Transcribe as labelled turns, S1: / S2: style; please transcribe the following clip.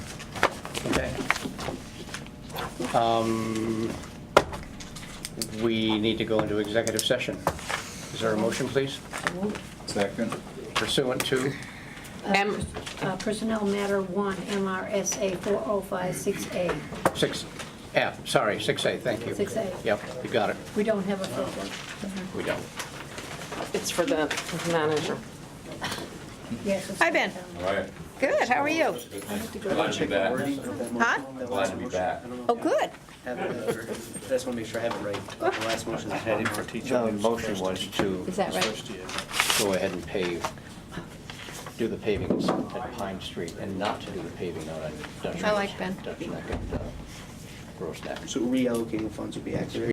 S1: Um, We need to go into executive session. Is there a motion, please,
S2: Second.
S1: pursuant to?
S3: M-
S4: Uh, Personnel Matter 1, MRSA 4056A.
S1: 6F, sorry, 6A, thank you.
S4: 6A.
S1: Yep, you got it.
S4: We don't have a filter.
S1: We don't.
S3: It's for the manager.
S4: Yes. it's-
S5: Hi, Ben.
S2: All right.
S5: Good, how are you?
S2: Glad to be back.
S5: Huh?
S2: Glad to be back.
S5: Oh, good.
S6: That's one, make sure I have it right. The last motion is headed for teacher.
S1: The motion was to
S5: Is that right?
S1: go ahead and pave, do the paving at Pine Street and not to do the paving out on Dutch.
S5: I like Ben.
S1: Dutch Neck and uh, Gross Neck.
S6: So reallocating funds would be accurate.